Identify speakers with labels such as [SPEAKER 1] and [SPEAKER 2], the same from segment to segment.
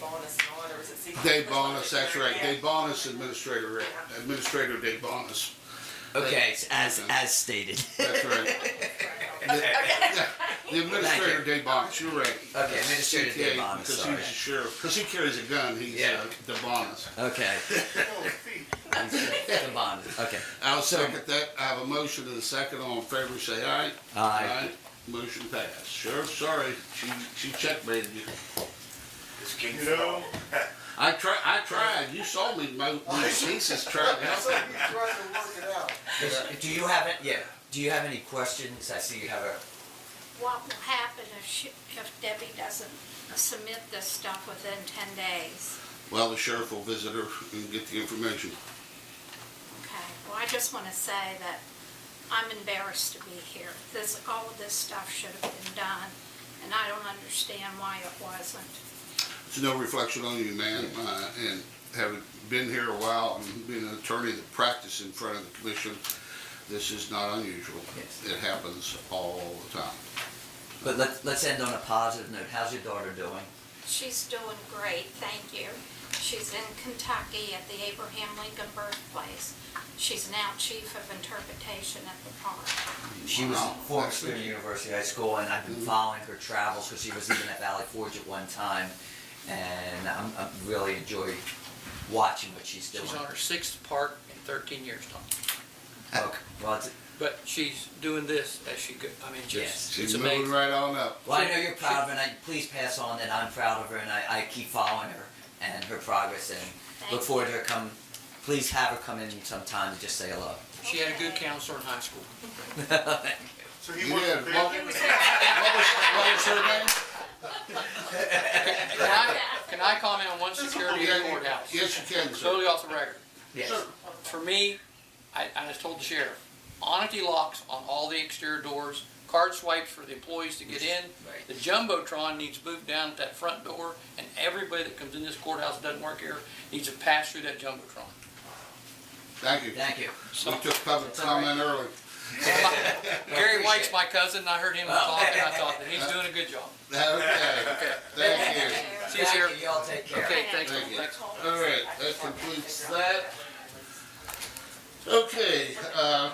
[SPEAKER 1] bonus and on, or is it secret?
[SPEAKER 2] Dave Bonus, that's right,
[SPEAKER 1] Yeah.
[SPEAKER 2] Dave Bonus, Administrator, Administrator Dave Bonus,
[SPEAKER 3] Okay, as
[SPEAKER 2] Okay.
[SPEAKER 3] as stated.
[SPEAKER 2] that's right. The- yeah, The Administrator Dave Bonus, you're right.
[SPEAKER 3] Okay, Administrator
[SPEAKER 2] CTA,
[SPEAKER 3] Dave Bonas,
[SPEAKER 2] Because
[SPEAKER 3] sorry.
[SPEAKER 2] he's a sheriff, because he carries a gun, he's
[SPEAKER 3] Yeah.
[SPEAKER 2] uh, the Bonus.
[SPEAKER 3] Okay.
[SPEAKER 4] Oh,
[SPEAKER 3] The bond. Okay.
[SPEAKER 2] I'll
[SPEAKER 3] So-
[SPEAKER 2] second that, I have a motion and a second, all in favor, say aye.
[SPEAKER 3] Aye.
[SPEAKER 2] Motion passed. Sheriff, sorry, she, she checkmated you.
[SPEAKER 4] You know,
[SPEAKER 2] I tried, I tried, you saw me, my, my nieces tried to help me.
[SPEAKER 3] Do you have it? Yeah. Do you have any questions? I see you have a.
[SPEAKER 5] what will happen if she, if Debbie doesn't submit this stuff within ten days?
[SPEAKER 2] Well, the sheriff will visit her and get the information.
[SPEAKER 5] Okay, well, I just wanna say that I'm embarrassed to be here. This, all of this stuff should have been done, and I don't understand why it wasn't.
[SPEAKER 2] It's no reflection on you, man, uh, and having been here a while and being an attorney that practiced in front of the commission, this is not unusual.
[SPEAKER 3] Yes.
[SPEAKER 2] It happens all the time.
[SPEAKER 3] But let's let's end on a positive note. How's your daughter doing?
[SPEAKER 5] She's doing great, thank you. She's in Kentucky at the Abraham Lincoln birthplace. She's now chief of interpretation at the park.
[SPEAKER 3] She was
[SPEAKER 2] Wow.
[SPEAKER 3] a former student at University High School, and I've been following her travels because she was even at Valley Forge at one time, and I'm, I really enjoy watching what she's doing.
[SPEAKER 6] She's on her sixth part in thirteen years, Tom.
[SPEAKER 3] Okay. Well, it's,
[SPEAKER 6] But she's doing this as she go, I mean,
[SPEAKER 3] Yes.
[SPEAKER 6] just, it's
[SPEAKER 2] She's moving
[SPEAKER 6] amazing.
[SPEAKER 2] right on up.
[SPEAKER 3] Well, I know you're proud of her, and I, please pass on that I'm proud of her, and I, I keep following her and her progress, and look
[SPEAKER 5] Thank
[SPEAKER 3] forward to her come. Please have her come in sometime and just say hello.
[SPEAKER 6] She had a good counselor in high school.
[SPEAKER 4] so he
[SPEAKER 2] You
[SPEAKER 4] wants to
[SPEAKER 2] did.
[SPEAKER 4] be.
[SPEAKER 2] What what was, what was her name?
[SPEAKER 6] Can I, can I comment on one security in the
[SPEAKER 2] Yeah, you-
[SPEAKER 6] courthouse?
[SPEAKER 2] Yes, you can, sir.
[SPEAKER 6] Totally off the record.
[SPEAKER 3] Yes.
[SPEAKER 6] For me, I, I just told the sheriff, honesty locks on all the exterior doors, card swipes for the employees to get in.
[SPEAKER 3] Right.
[SPEAKER 6] The jumbotron needs moved down at that front door, and everybody that comes in this courthouse that doesn't work here needs to pass through that jumbotron.
[SPEAKER 2] Thank you.
[SPEAKER 3] Thank you.
[SPEAKER 2] We took public comment early.
[SPEAKER 6] Gary White's my cousin, and I heard him talk, and I thought that he's doing a good job.
[SPEAKER 2] Okay, thank you.
[SPEAKER 6] See you, Sheriff.
[SPEAKER 3] Thank you. Y'all take care.
[SPEAKER 6] Okay, thanks,
[SPEAKER 2] Thank you.
[SPEAKER 6] thanks.
[SPEAKER 2] All right, that completes that. Okay, uh,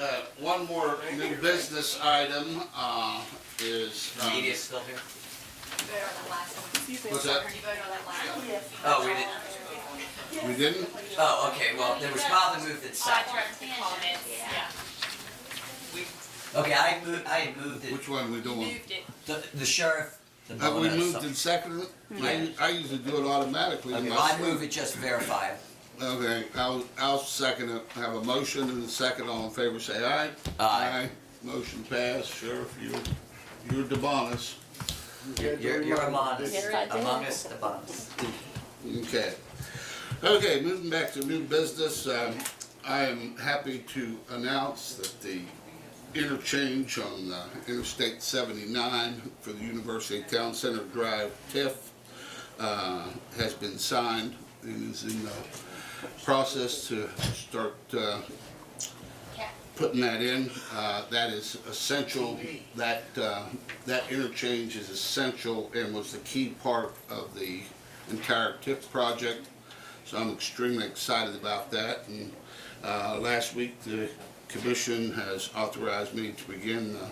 [SPEAKER 2] uh, one more new business item, uh, is,
[SPEAKER 3] The
[SPEAKER 2] um,
[SPEAKER 3] media's still here.
[SPEAKER 5] Vote on the last one.
[SPEAKER 2] what's that?
[SPEAKER 5] You voted on that last one?
[SPEAKER 3] Oh, we didn't.
[SPEAKER 2] We didn't?
[SPEAKER 3] Oh, okay. Well, there was probably moved in second.
[SPEAKER 7] comments, yeah.
[SPEAKER 3] Okay, I moved. I moved it.
[SPEAKER 2] Which one we doing?
[SPEAKER 7] Moved it.
[SPEAKER 3] The, the sheriff. The
[SPEAKER 2] Have we
[SPEAKER 3] Mona,
[SPEAKER 2] moved
[SPEAKER 3] some-
[SPEAKER 2] and seconded? I, I usually do it automatically.
[SPEAKER 3] Okay, well,
[SPEAKER 2] unless-
[SPEAKER 3] I move it just verify it.
[SPEAKER 2] Okay, I'll, I'll second it. I Have a motion and a second. All in favor, say aye.
[SPEAKER 3] Aye.
[SPEAKER 2] Motion passed. Sheriff, you, you're DeBonis.
[SPEAKER 3] You're, you're, you're among us. Among us, the bonus.
[SPEAKER 2] Okay. Okay, moving back to new business, um, I am happy to announce that the interchange on uh, Interstate 79 for the University Town Center Drive TIF uh, has been signed and is in the process to start uh, putting that in. Uh, That is essential, that, uh, that interchange is essential and was the key part of the entire TIF project. So I'm extremely excited about that. And uh, last week, the commission has authorized me to begin the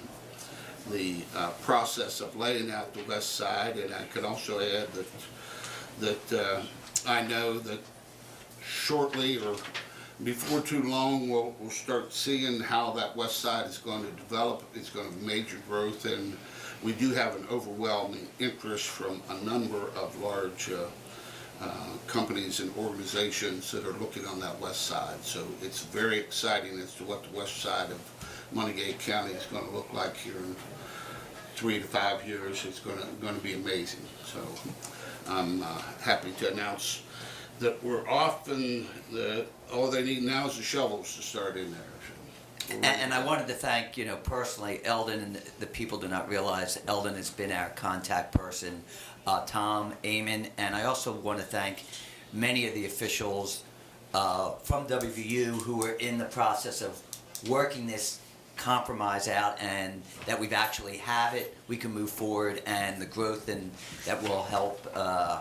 [SPEAKER 2] the uh, process of laying out the west side, and I can also add that, that uh, I know that shortly or before too long, we'll, we'll start seeing how that west side is going to develop. It's going to be major growth, and we do have an overwhelming interest from a number of large uh, uh, companies and organizations that are looking on that west side. So it's very exciting as to what the west side of Montague County is going to look like here in three to five years. It's going to, going to be amazing. So I'm uh, happy to announce that we're off and the, all they need now is the shovels to start in there. So we're-
[SPEAKER 3] And, and I wanted to thank, you know, personally, Eldon, and the, the people do not realize Eldon has been our contact person, uh, Tom, Amon, and I also want to thank many of the officials uh, from WVU who were in the process of working this compromise out and that we've actually have it, we can move forward, and the growth and that will help uh,